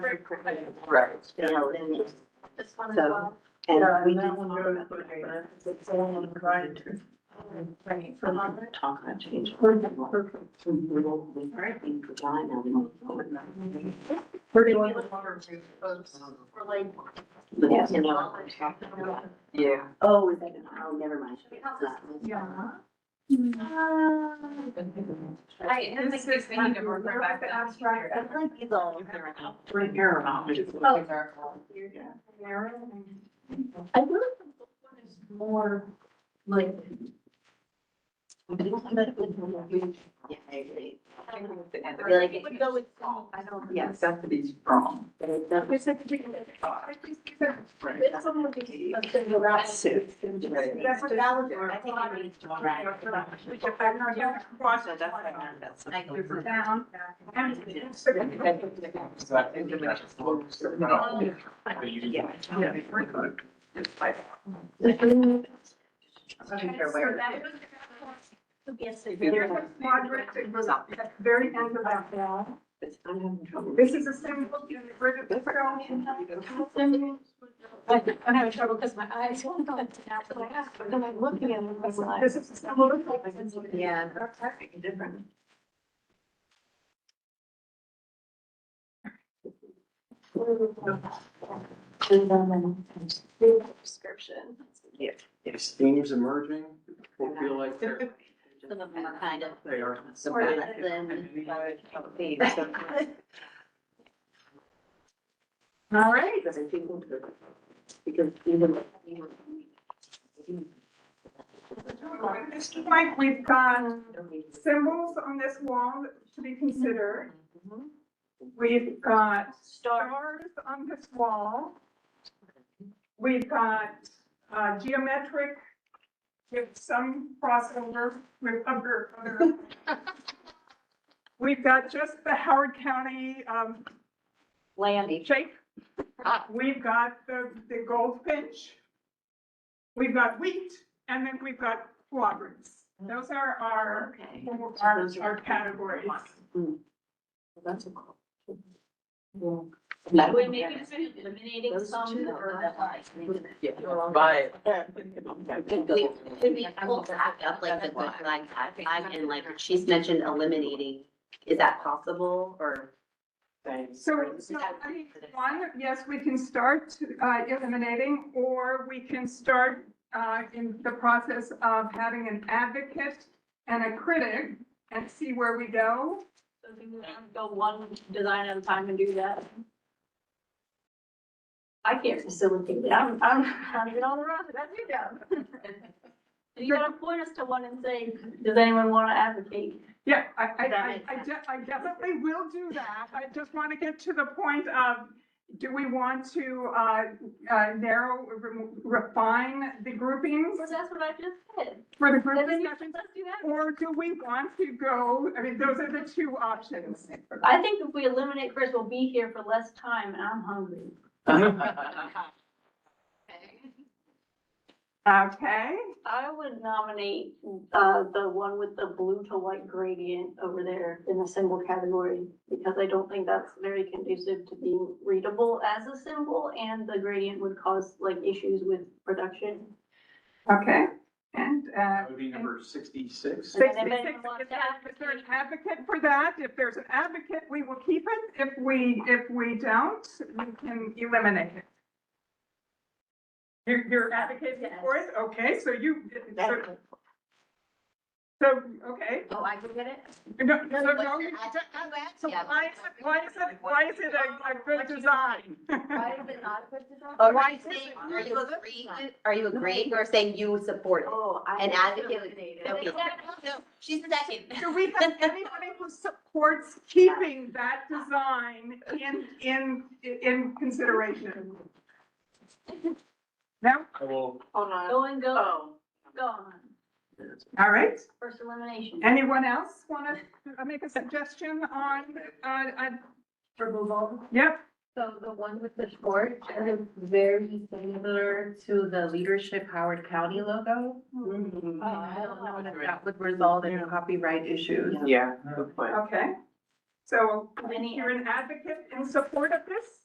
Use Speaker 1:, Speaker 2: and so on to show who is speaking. Speaker 1: very quickly.
Speaker 2: Right.
Speaker 1: You know, and it's-
Speaker 3: This one as
Speaker 1: So,
Speaker 3: well.
Speaker 1: Yeah,
Speaker 4: And we
Speaker 1: and that
Speaker 4: didn't
Speaker 1: one
Speaker 4: talk
Speaker 1: goes
Speaker 4: about
Speaker 1: for
Speaker 4: the
Speaker 1: the-
Speaker 4: grant.
Speaker 1: It's all on the grind.
Speaker 3: Right.
Speaker 1: From
Speaker 3: Um,
Speaker 1: the talk about change.
Speaker 4: So we will be in Regina and forward.
Speaker 1: Pretty
Speaker 3: we
Speaker 1: much.
Speaker 3: look forward to folks for like-
Speaker 4: But
Speaker 1: Yes.
Speaker 4: you know, I'm talking about.
Speaker 2: Yeah.
Speaker 4: Oh, is that, oh, never mind.
Speaker 3: Should we have this?
Speaker 1: Yeah.
Speaker 3: Um, I, I think this we need to work back. to abstract.
Speaker 4: I feel like it's all.
Speaker 2: Bring your amount.
Speaker 3: Oh.
Speaker 2: Yeah.
Speaker 1: I feel like the book one is more like.
Speaker 4: But it's not that it's- Yeah, I agree.
Speaker 2: And
Speaker 4: I feel like
Speaker 3: It
Speaker 4: it-
Speaker 3: would go with song. I don't.
Speaker 2: yeah, stuff that is wrong.
Speaker 4: but it's not-
Speaker 1: There's like a big.
Speaker 2: Right.
Speaker 1: It's almost like a thing around suit.
Speaker 2: Right.
Speaker 1: That's what that was.
Speaker 4: I think I need to.
Speaker 3: Right.
Speaker 1: Which if I'm not.
Speaker 3: Yeah.
Speaker 4: So that's why I'm not about
Speaker 3: Like,
Speaker 4: something.
Speaker 3: down. I'm just-
Speaker 2: So I think that that's what- so, no.
Speaker 4: Yeah.
Speaker 2: Yeah. It's like-
Speaker 3: So that was-
Speaker 4: Yes,
Speaker 1: There's a quadrant that goes up at the very end of that wall.
Speaker 4: But I'm having trouble.
Speaker 1: This is a symbol, you know, the river that's around in that.
Speaker 3: I'm having trouble because my eyes won't go into that. So I asked, but then I'm looking at it, and it's like-
Speaker 1: This is a symbol. of like-
Speaker 4: Yeah.
Speaker 2: That's actually different.
Speaker 3: Description.
Speaker 5: It's themes emerging, we feel like they're,
Speaker 4: Some of them are kind of.
Speaker 2: They are.
Speaker 4: Sort of them, but-
Speaker 1: All right.
Speaker 4: Because I think. Because even.
Speaker 1: Mr. Mike, we've got symbols on this wall to be considered. We've got stars on this wall. We've got uh, geometric, with some crossover with other. other- We've got just the Howard County um,
Speaker 4: Landy.
Speaker 1: shape. We've got the, the goldfinch. We've got wheat, and then we've got quadrants. Those are our
Speaker 4: Okay.
Speaker 1: our, our categories.
Speaker 4: That's a cool.
Speaker 3: Would we maybe just eliminating
Speaker 4: Those
Speaker 3: some
Speaker 4: two
Speaker 3: or
Speaker 4: are
Speaker 3: like?
Speaker 4: the-
Speaker 2: Yeah, buy it.
Speaker 4: We- Could we pull back up like the good flag, bad flag, and like she's mentioned eliminating, is that possible or?
Speaker 2: Thanks.
Speaker 1: So, so, I mean, one, yes, we can start uh, eliminating, or we can start uh, in the process of having an advocate and a critic and see where we go.
Speaker 3: So can we Go one design at a time and do that? I can't facilitate it. I'm, I'm, I'm doing all the rest, that's your job. And you gotta point us to one and say, does anyone wanna advocate?
Speaker 1: Yeah, I, I,
Speaker 4: That
Speaker 1: I,
Speaker 4: makes
Speaker 1: I de- I definitely will do that. I just want to get to the point of, do we want to uh, uh, narrow, remo- refine the groupings
Speaker 3: Well, that's what I just said.
Speaker 1: for the group
Speaker 3: Then you-
Speaker 1: discussion?
Speaker 3: let's do that.
Speaker 1: Or do we want to go, I mean, those are the two options.
Speaker 3: I think if we eliminate Chris, we'll be here for less time and I'm hungry.
Speaker 1: Okay,
Speaker 3: I would nominate, uh, the one with the blue to white gradient over there in the symbol category, because I don't think that's very conducive to being readable as a symbol, and the gradient would cause like issues with production.
Speaker 1: okay, and, uh,
Speaker 5: That would be number sixty-six.
Speaker 3: And then if
Speaker 1: sixty-six,
Speaker 3: anyone wants
Speaker 1: is
Speaker 3: to
Speaker 1: there- is there an
Speaker 3: advocate-
Speaker 1: advocate for that? If there's an advocate, we will keep it. If we, if we don't, we can eliminate it. You're, you're advocating for it? Okay, so you, so, so, okay.
Speaker 4: Oh, I can get it?
Speaker 1: No,
Speaker 4: No,
Speaker 1: so
Speaker 4: but
Speaker 1: no,
Speaker 4: you're
Speaker 1: you-
Speaker 4: ad-
Speaker 1: so
Speaker 4: yeah.
Speaker 1: why is it, why is it, why is it a, a good design?
Speaker 4: Why is it not a good design?
Speaker 1: Or
Speaker 4: Are
Speaker 1: why
Speaker 4: you
Speaker 1: is it-
Speaker 4: saying- are you agreeing, with- are you agreeing or saying you support it?
Speaker 3: Oh, I.
Speaker 4: An advocate would- Okay. No, She's the second.
Speaker 1: Do we have anybody who supports keeping that design in, in, in consideration? No?
Speaker 5: I will,
Speaker 6: Hold on.
Speaker 3: Go and go,
Speaker 6: Oh,
Speaker 3: go on,
Speaker 1: All right.
Speaker 3: first elimination.
Speaker 1: Anyone else want to make a suggestion on, on, on? Removal. Yep.
Speaker 7: So the one with the torch is very similar to the leadership Howard County logo. Oh, Um, I don't know if that would result in copyright issues.
Speaker 2: Yeah, good point.
Speaker 1: Okay. So
Speaker 3: Any
Speaker 1: you're an advocate in support of this?